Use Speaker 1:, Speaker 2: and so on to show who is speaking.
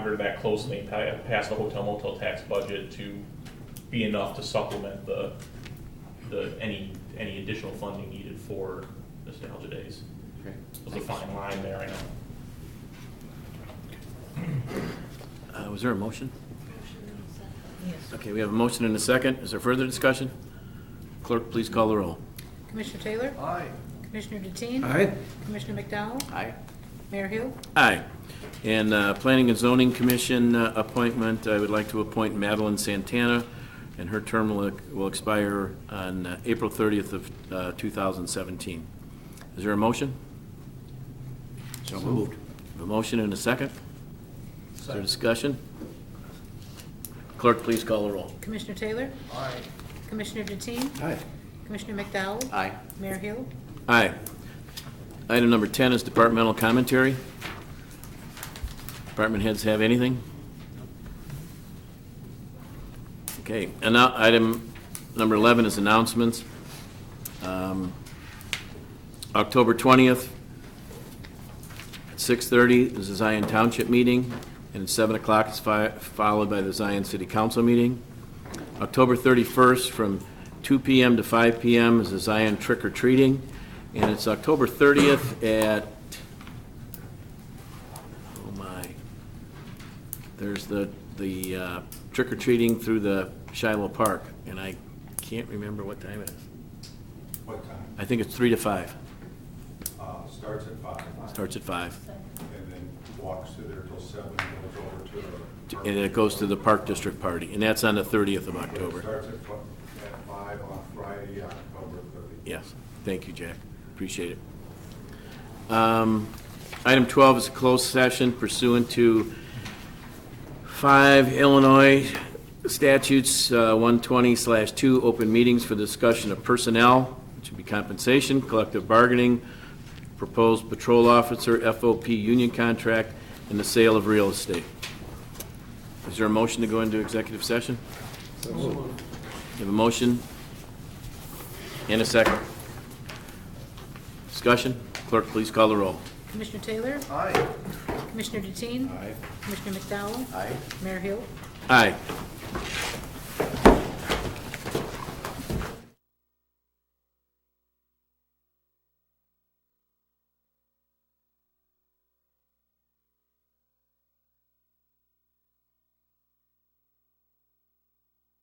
Speaker 1: monitor that closely and pa- pass the hotel motel tax budget to be enough to supplement the, the, any, any additional funding needed for nostalgia days.
Speaker 2: Okay.
Speaker 1: There's a fine line there, I know.
Speaker 2: Uh, Was there a motion?
Speaker 3: Yes.
Speaker 2: Okay, we have a motion and a second. Is there further discussion? Clerk, please call the roll.
Speaker 3: Commissioner Taylor?
Speaker 4: Aye.
Speaker 3: Commissioner Deteen?
Speaker 4: Aye.
Speaker 3: Commissioner McDowell?
Speaker 2: Aye.
Speaker 3: Mayor Hill?
Speaker 2: Aye. And uh, Planning and Zoning Commission uh, appointment, I would like to appoint Madeline Santana, and her term will will expire on uh, April 30th of uh, 2017. Is there a motion? So moved. A motion and a second? Is there discussion? Clerk, please call the roll.
Speaker 3: Commissioner Taylor?
Speaker 4: Aye.
Speaker 3: Commissioner Deteen?
Speaker 2: Aye.
Speaker 3: Commissioner McDowell?
Speaker 2: Aye.
Speaker 3: Mayor Hill?
Speaker 2: Aye. Item number 10 is departmental commentary. Department heads have anything? Okay, and now, item number 11 is announcements. Um, October 20th, at 6:30 is the Zion Township meeting, and at 7 o'clock is fi- followed by the Zion City Council meeting. October 31st, from 2 PM to 5 PM is the Zion Trick or Treating, and it's October 30th at, oh my, there's the, the uh, trick or treating through the Shiloh Park, and I can't remember what time it is.
Speaker 5: What time?
Speaker 2: I think it's 3 to 5,
Speaker 5: Uh, Starts at five.
Speaker 2: starts at 5,
Speaker 5: And then walks through there till seven, goes over to the.
Speaker 2: and it goes to the Park District Party, and that's on the 30th of October.
Speaker 5: Starts at fi- at five on Friday, October thirty.
Speaker 2: Yes, thank you, Jack. Appreciate it. Um, Item 12 is a closed session pursuant to 5 Illinois statutes uh, 120/2, open meetings for discussion of personnel, which would be compensation, collective bargaining, proposed patrol officer, FOP union contract, and the sale of real estate. Is there a motion to go into executive session? You have a motion? In a second. Discussion? Clerk, please call the roll.
Speaker 3: Commissioner Taylor?
Speaker 4: Aye.
Speaker 3: Commissioner Deteen? Commissioner McDowell? Mayor Hill?
Speaker 2: Aye.